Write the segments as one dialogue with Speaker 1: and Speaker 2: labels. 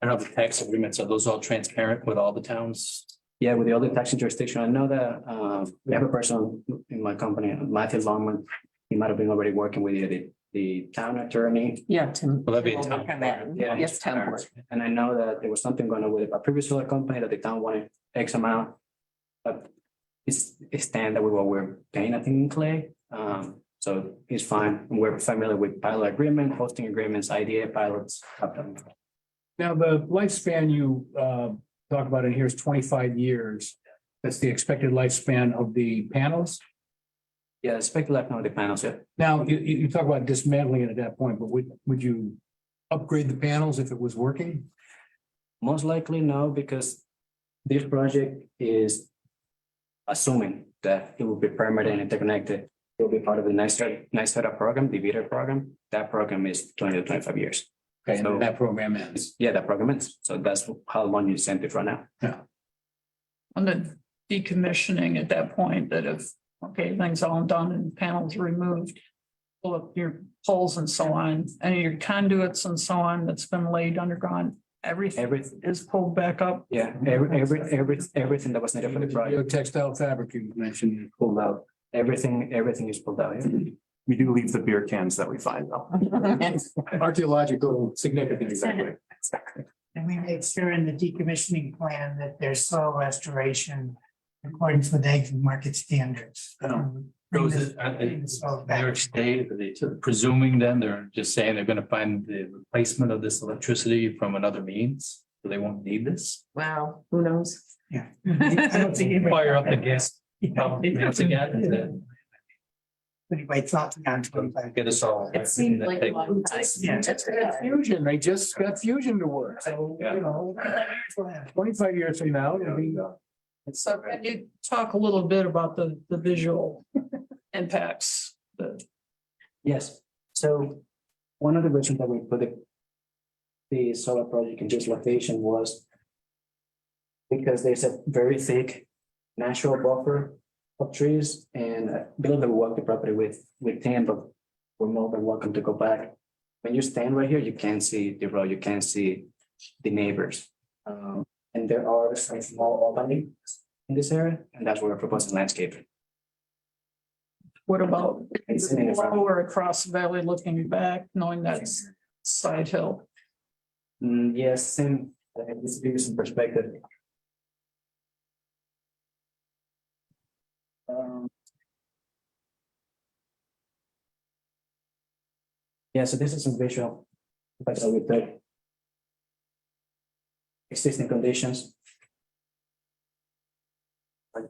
Speaker 1: I don't know the tax agreements, are those all transparent with all the towns?
Speaker 2: Yeah, with the other taxi jurisdiction, I know that uh we have a person in my company, Matthew Longman. He might have been already working with you, the the town attorney.
Speaker 3: Yeah, Tim.
Speaker 1: Will that be a
Speaker 3: Tim will
Speaker 1: town
Speaker 3: work on
Speaker 1: board?
Speaker 3: that.
Speaker 2: Yeah.
Speaker 3: Yes, town board.
Speaker 2: And I know that there was something going on with a previous solar company that the town wanted X amount. But it's it's stand that we were we're paying, I think, in clay. Um, so it's fine. We're familiar with pilot agreement, hosting agreements, IDA pilots. have them.
Speaker 4: Now, the lifespan you uh talk about in here is twenty-five years. That's the expected lifespan of the panels.
Speaker 2: Yeah, spec left now the panels, yeah.
Speaker 4: Now, you you you talk about dismantling it at that point, but would would you upgrade the panels if it was working?
Speaker 2: Most likely no, because this project is assuming that it will be permitted and interconnected. It will be part of the nice, nice setup program, the VITA program. That program is twenty to twenty-five years.
Speaker 4: Okay, and
Speaker 2: No.
Speaker 4: that program ends.
Speaker 2: It's- Yeah, that program is. So that's how long you send it right now.
Speaker 5: on the decommissioning at that point, that if, okay, things all done and panels removed. Pull up your poles and so on, and your conduits and so on that's been laid underground, everything
Speaker 2: Every,
Speaker 5: is pulled back up.
Speaker 2: yeah, every, every, every, everything that was needed for the
Speaker 4: Your
Speaker 2: project,
Speaker 4: textile fabric you mentioned.
Speaker 2: pulled out. Everything, everything is pulled out. yeah.
Speaker 6: We do leave the beer cans that we find though.
Speaker 4: Archaeological significance. Exactly.
Speaker 7: And we make sure in the decommissioning plan that there's soil restoration in accordance with ag market standards.
Speaker 1: Oh.
Speaker 7: Um, bring
Speaker 1: Those, uh,
Speaker 7: this-
Speaker 1: are- are
Speaker 7: bring
Speaker 1: they-
Speaker 7: this soil back.
Speaker 1: they're staying, are they presuming then, they're just saying they're gonna find the replacement of this electricity from another means? So they won't need this?
Speaker 3: Wow, who knows?
Speaker 7: Yeah. I don't think anybody-
Speaker 1: Fire up the gas. pump once again, and then
Speaker 7: Anybody thought around twenty-five.
Speaker 1: Get us all.
Speaker 3: It seemed like a long time.
Speaker 7: Yeah.
Speaker 3: That's
Speaker 4: Fusion, they just got fusion to work.
Speaker 7: So,
Speaker 1: Yeah.
Speaker 7: you know. we'll have-
Speaker 4: Twenty-five years from
Speaker 8: Oh,
Speaker 4: now, it'll be.
Speaker 5: So can you talk a little bit about the, the visual impacts? The,
Speaker 2: Yes, so one of the reasons that we put the. The solar project in this location was. Because there's a very thick natural buffer of trees and I believe that we walked the property with with Tim, but. We're more than welcome to go back. When you stand right here, you can't see the road, you can't see the neighbors. Um, and there are some small openings in this area, and that's where we're proposing landscaping.
Speaker 5: what about
Speaker 2: It's in the front.
Speaker 5: lower across the valley looking back, knowing that's side hill?
Speaker 2: Mm, yes, same, uh, this gives some perspective. Um, Yeah, so this is some visual, but so with the existing conditions. Like,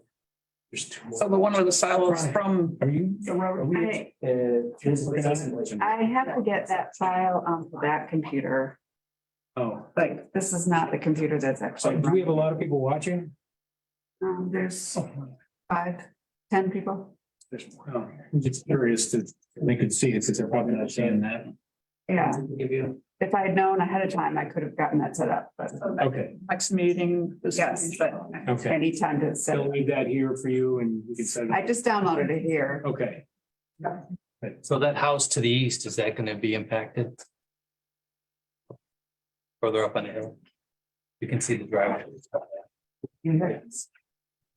Speaker 2: There's two.
Speaker 5: So the one with the silos from
Speaker 4: Are you?
Speaker 5: the railroad.
Speaker 8: I,
Speaker 2: Uh, this is-
Speaker 8: I have to get that file um, onto that computer.
Speaker 4: Oh.
Speaker 8: Like, this is not the computer that's
Speaker 4: So
Speaker 8: actually.
Speaker 4: do we have a
Speaker 8: running.
Speaker 4: lot of people watching?
Speaker 8: Um, there's five, ten people.
Speaker 4: Oh, I'm just curious to, they could see it since they're probably not seeing that.
Speaker 8: Yeah,
Speaker 2: Give you.
Speaker 8: if I had known ahead of time, I could have gotten that set up, but
Speaker 4: Okay,
Speaker 5: Next meeting. this-
Speaker 8: yes, but
Speaker 4: okay.
Speaker 8: any time to set.
Speaker 4: They'll
Speaker 8: it.
Speaker 4: leave that here for you and we can set it.
Speaker 8: I just downloaded it here.
Speaker 4: Okay,
Speaker 1: So that house to the east, is that gonna be impacted? Further up on the hill? You can see the driveway.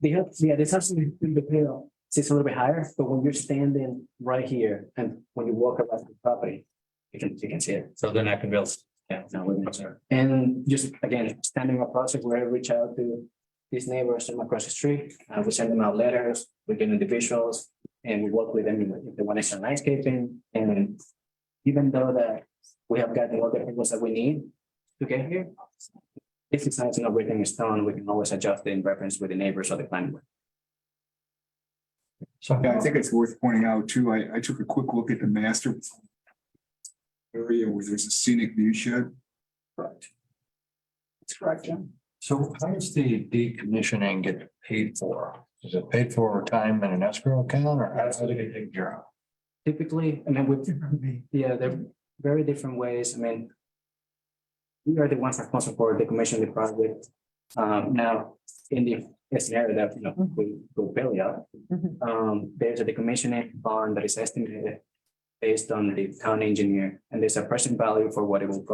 Speaker 2: They have, yeah, this has to be in the pale. It's a little bit higher, but when you're standing right here and when you walk around the property, you can, you can see it.
Speaker 1: So they're not gonna be able. to- Yeah.
Speaker 2: No, we're not And just again, standing up process where I reach out to these neighbors from across the street. Uh, we send them out letters, we get individuals and we work with them if they want extra landscaping and even though that we have gotten all the things that we need to get here. If it's not, to know everything is done, we can always adjust in reference with the neighbors or the planning. board.
Speaker 9: Yeah, I think it's worth pointing out too, I, I took a quick look at the master area where there's a scenic view shed.
Speaker 8: That's correct, Jim.
Speaker 6: So how does the decommissioning get paid for? Is it paid for over time in an escrow account or? how does it get taken care of?
Speaker 2: Typically, I mean, with
Speaker 7: Different me.
Speaker 2: Yeah, they're very different ways. I mean. We are the ones responsible for the commission of the project. Um, now, in the scenario that, you know,
Speaker 7: Mm-hmm.
Speaker 2: we go belly up.
Speaker 3: Mhm.
Speaker 2: Um, there's a decommissioning bond that is estimated based on the town engineer, and there's a present value for what it will cost